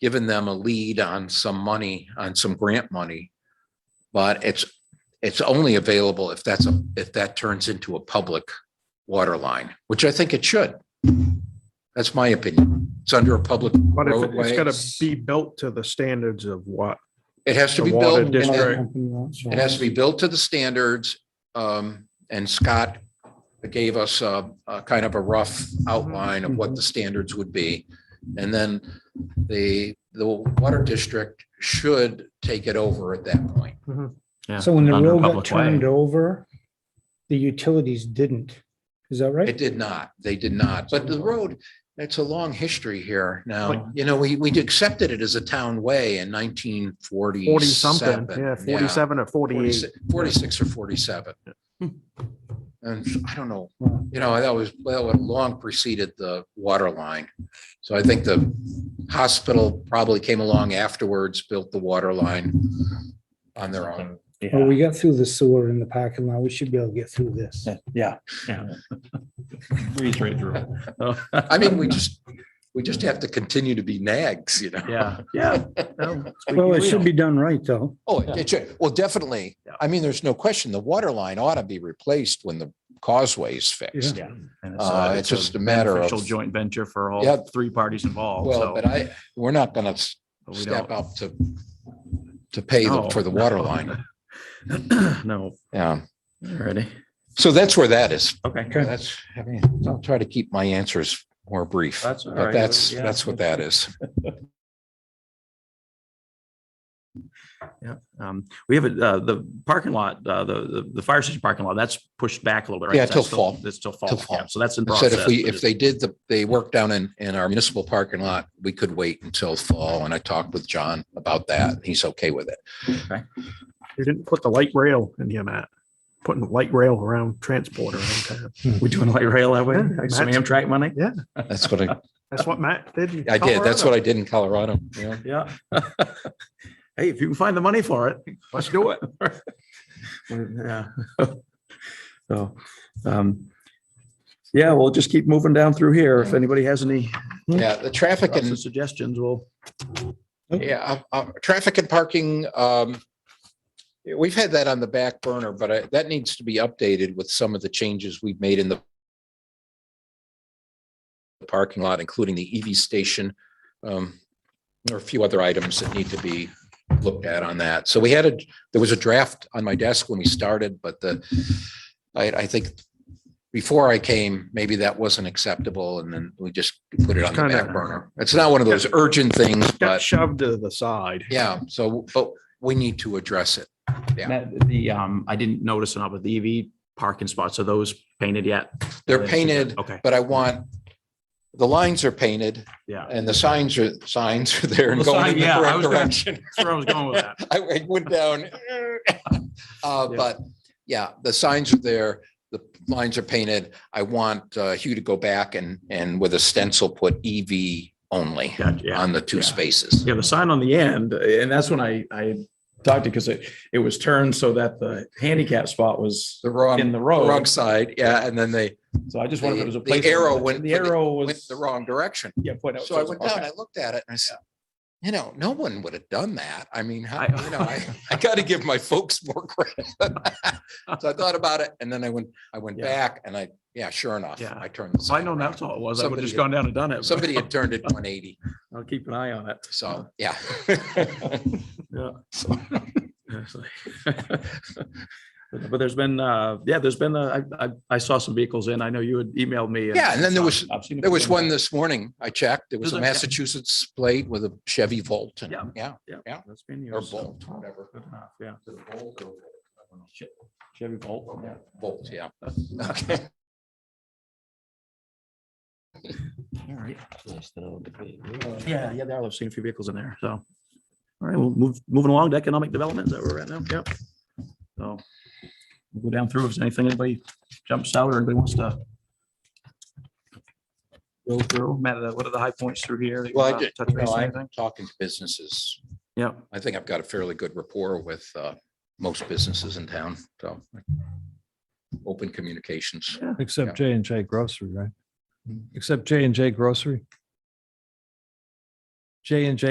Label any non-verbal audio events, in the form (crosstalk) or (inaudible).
given them a lead on some money, on some grant money. But it's, it's only available if that's, a if that turns into a public water line, which I think it should. That's my opinion. It's under a public But if it- it's roadway. gotta be built to the standards of what It has to the be water built. district. and- It has to be built to the standards. Um, and Scott gave us a, a kind of a rough Mm-hmm. outline of what the standards would be. And then the, the water district should take it over at that point. Yeah, So when the under road got public way. turned over, the utilities didn't. Is that It right? did not, they did not, but the road, it's a long history here now. You know, we, we accepted it as a town way in nineteen forty. forty something, yeah, forty-seven or forty-eight. 46 46 or 47. And I don't know, you know, that was, well, it long preceded the water line. So I think the hospital probably came along afterwards, built the water line on their own. Well, we got through the sewer in the parking lot. We should be able to get through this. Yeah. (laughs) Breeze right through. I mean, we just, we just have to continue to be nags, you know? Yeah. Yeah. Well, it should be done right, though. Oh, it should, well, definitely. I mean, there's no question, the water line ought to be replaced when the causeway is fixed. Yeah. And Uh, it's just a matter of- beneficial Joint venture for Yeah. all three parties involved, Well, so. but I, we're not gonna s- but we step don't- up to, to pay the- No, for the water no. line. (clears throat) No, Yeah. ready? So that's where that is. Okay. That's, I mean, I'll try to keep my answers more brief, That's all but right. that's, Yeah. that's what that is. Yeah, um, we have a, uh, the parking lot, uh, the, the, the fire station parking lot, that's pushed back a little bit. right? Yeah, Is that till still- fall. That's still Till fall. fall. Yeah, so that's in I said process. if we, but if they did the, they work down in, in our municipal parking lot, we could wait until fall. And I talked with John about that. and He's okay with it. You didn't put the light rail in here, Matt. Putting the light rail around transport around town. We're doing light rail that way, Yeah, some that's- Amtrak money? That's what I, That's what Matt did. in I did. That's what Colorado. I did in Colorado. Yeah. Yeah. (laughs) Hey, if you can find the money for it, let's do it. (laughs) Yeah. So, um, yeah, we'll just keep moving down through here. If anybody has any Yeah, the traffic thoughts and or suggestions, we'll. Yeah, uh, uh, traffic and parking, um, we've had that on the back burner, but I- that needs to be updated with some of the changes we've made in the parking lot, including the EV station. Um, there are a few other items that need to be looked at on that. So we had a, there was a draft on my desk when we started, but the, I, I think before I came, maybe that wasn't acceptable and then we just put it on the Kinda- back burner. It's not one of those urgent things, but. Got shoved to the side. Yeah, so, but we need to address it. Matt, The, um, I didn't notice enough of the EV parking spots. Are those painted yet? They're painted, Okay, but I want, the lines are painted (laughs) yeah. and the signs are, signs are there and Well, going in sign- the yeah, I correct was gonna- direction. (laughs) That's where I was going with that. I I went (laughs) down. Uh, but yeah, the signs are there, the lines are painted. I want uh, Hugh to go back and, and with a stencil, put EV only Gotcha, Yeah. on the two yeah. spaces. Yeah, the sign on the end, and that's when I, I talked to, because it, it was turned so that the handicap spot was The wrong, in the the wrong road. side, yeah, and then they So I just wondered if it was a the place. arrow went- The arrow went was. the wrong direction. Yeah. point out- So I went down, okay. I looked at it and I said, you know, no one would have done that. I mean, how, I- you know, (laughs) I, I gotta give my folks more credit. So I thought about it and then I went, I went Yeah. back and I, yeah, sure enough, Yeah. I turned. the So I sign know around. that's all it was. I would have just Somebody- gone down and done it. Somebody had turned it one eighty, (laughs) I'll keep an eye on it. so, yeah. (laughs) Yeah. So- Actually. (laughs) But there's been, uh, yeah, there's been, uh, I, I, I saw some vehicles in. I know you had emailed me. Yeah, and then there was- I've seen a There was couple one this morning, I checked, there was There's a a- yeah. Massachusetts plate with a Chevy Volt and, Yeah. yeah, yeah, That's been or yours. so- Bolt, whatever. Good enough, Yeah. Is it a Volt or- I don't know. Chevy Volt. yeah. Volt, (laughs) yeah. All right. Yeah, yeah, they are. I've seen a few vehicles in there, so. All right, we'll move, moving along to economic development, is that where we're at now? Yep. So we'll go down through if there's anything anybody jumps out or anybody wants to go through, Matt, uh, what are the high points through here? that you Well, I wanna did, touch you base know, on I'm anything? talking to businesses. Yep. I think I've got a fairly good rapport with uh, most businesses in town, so. Open communications. Yeah. Except J and J Grocery, right? Except J and J Grocery. J and J